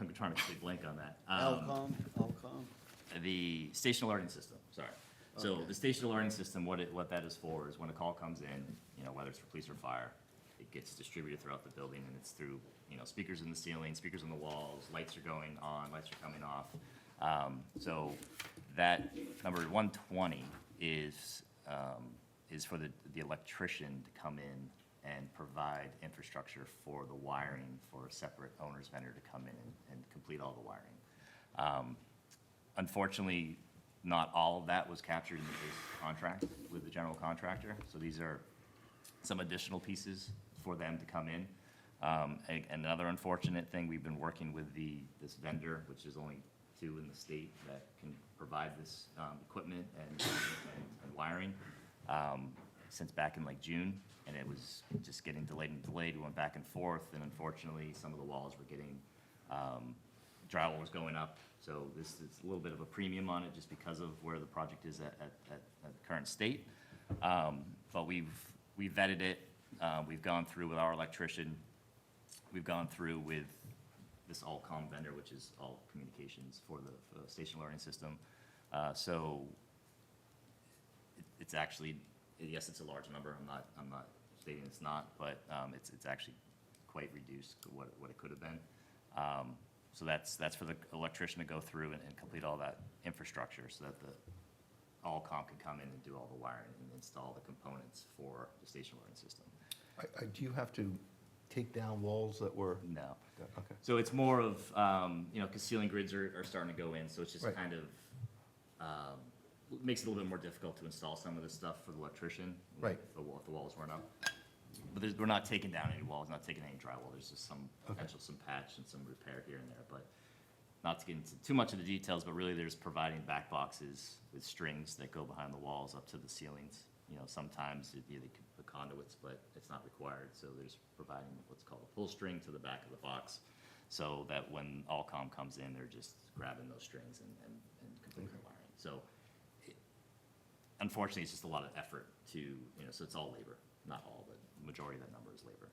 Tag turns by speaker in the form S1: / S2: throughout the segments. S1: I'm trying to keep blank on that. Um,
S2: Alcom, Alcom,
S1: The station alerting system, sorry. So the station alerting system, what it, what that is for is when a call comes in, you know, whether it's for police or fire, it gets distributed throughout the building and it's through, you know, speakers in the ceiling, speakers on the walls, lights are going on, lights are coming off. Um, So that number one twenty is, um, is for the, the electrician to come in and provide infrastructure for the wiring for a separate owner's vendor to come in and, and complete all the wiring. Um, Unfortunately, not all of that was captured in the base contract with the general contractor, so these are some additional pieces for them to come in. Um, a- Another unfortunate thing, we've been working with the, this vendor, which is only two in the state that can provide this um, equipment and and wiring, um, since back in like June, and it was just getting delayed and delayed, we went back and forth, and unfortunately, some of the walls were getting um, drywall was going up, so this is a little bit of a premium on it just because of where the project is at, at, at at the current state. Um, But we've, we vetted it, uh, we've gone through with our electrician, we've gone through with this Allcom vendor, which is all communications for the, for the station learning system. Uh, So it- it's actually, yes, it's a large number, I'm not, I'm not stating it's not, but um, it's, it's actually quite reduced to what, what it could have been. Um, So that's, that's for the electrician to go through and, and complete all that infrastructure so that the Allcom can come in and do all the wiring and install the components for the station learning system.
S3: I- I- Do you have to take down walls that were,
S1: No.
S3: okay.
S1: So it's more of, um, you know, because ceiling grids are, are starting to go in, so it's just
S3: Right.
S1: kind of, um, makes it a little bit more difficult to install some of this stuff for the electrician.
S3: Right.
S1: If the wall, if the walls weren't up. But there's, we're not taking down any walls, not taking any drywall, there's just some
S3: Okay.
S1: potential, some patch and some repair here and there, but not to get into too much of the details, but really there's providing back boxes with strings that go behind the walls up to the ceilings. You know, sometimes it'd be the the conduits, but it's not required, so there's providing what's called a pull string to the back of the box. So that when Allcom comes in, they're just grabbing those strings and, and, and completing the wiring. So it- unfortunately, it's just a lot of effort to, you know, so it's all labor, not all, but majority of that number is labor.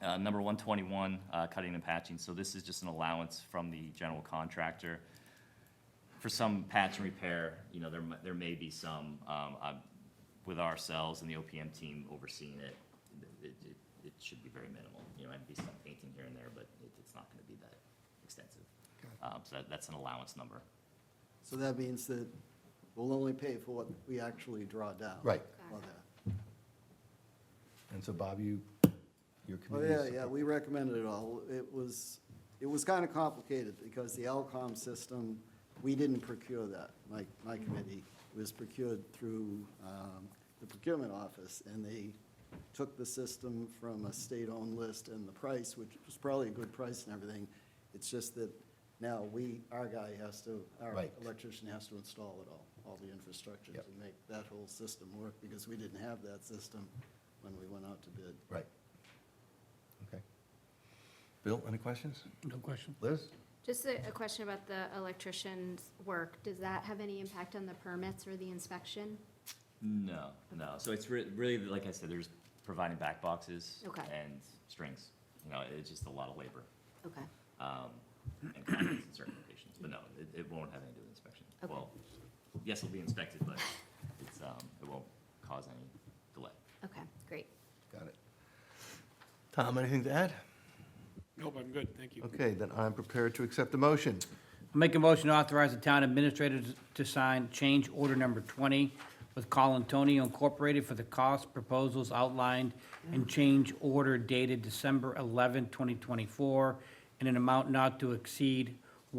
S1: Uh, Number 121, uh, cutting and patching. So this is just an allowance from the general contractor. For some patch and repair, you know, there, mi- there may be some, um, uh, with ourselves and the OPM team overseeing it, it, it- it should be very minimal. You know, might be some painting here and there, but it- it's not going to be that extensive. Um, So that- that's an allowance number.
S2: so that means that we'll only pay for what we actually draw down.
S3: Right.
S2: on that.
S3: And so Bob, you, your
S2: Oh,
S3: committee.
S2: yeah,
S3: is-
S2: yeah, we recommended it all. It was, it was kind of complicated because the Alcom system, we didn't procure that. My, my committee was procured through um, the procurement office, and they took the system from a state-owned list and the price, which was probably a good price and everything. It's just that now we, our guy has to, our
S3: Right.
S2: electrician has to install it all, all the infrastructure
S3: Yep.
S2: to make that whole system work, because we didn't have that system when we went out to bid.
S3: Right. Okay. Bill, any questions?
S4: No question.
S3: Liz?
S5: Just a, a question about the electrician's work. Does that have any impact on the permits or the inspection?
S1: No, no. So it's re- really, like I said, there's providing back boxes
S5: Okay.
S1: and strings. You know, it's just a lot of labor.
S5: Okay.
S1: um, and comments in certain locations, but no, it, it won't have anything to do with inspection.
S5: Okay.
S1: Well, yes, it'll be inspected, but it's, um, it won't cause any delay.
S5: Okay, great.
S3: Got it. Tom, anything to add?
S4: Nope, I'm good, thank you.
S3: Okay, then I'm prepared to accept the motion.
S4: Make a motion to authorize the town administrator to- to sign change order number 20 with Colin Tony Incorporated for the cost proposals outlined in change order dated December 11, 2024, in an amount not to exceed
S3: So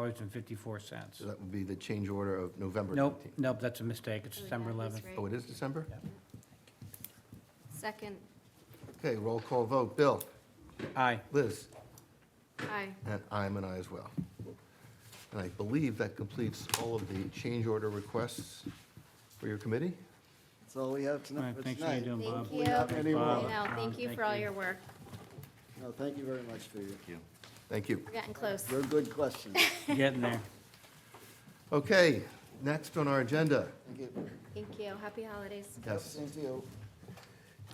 S4: $111,142.54.
S3: that would be the change order of November
S4: Nope,
S3: 19th.
S4: nope, that's a mistake, it's December
S5: Oh, that was
S4: 11.
S5: right.
S3: Oh, it is December?
S5: Second,
S3: Okay, roll call vote. Bill?
S4: Aye.
S3: Liz?
S5: aye.
S3: And I'm an I as well. And I believe that completes all of the change order requests for your committee?
S2: That's all we have
S4: All right,
S2: tonight. for
S4: thanks for
S2: tonight.
S4: doing, Bob.
S5: Thank you.
S2: Bob.
S5: No,
S4: Bob,
S5: thank you
S4: thank
S5: for all
S4: you.
S5: your work.
S2: No, thank you very much for your,
S1: Thank you.
S3: Thank you.
S5: We're getting close.
S2: your good questions.
S4: Getting there.
S3: Okay, next on our agenda,
S2: Thank you.
S5: Thank you. Happy holidays.
S3: yes,
S2: Same to you.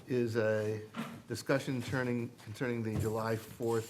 S3: is a discussion turning, concerning the July 4th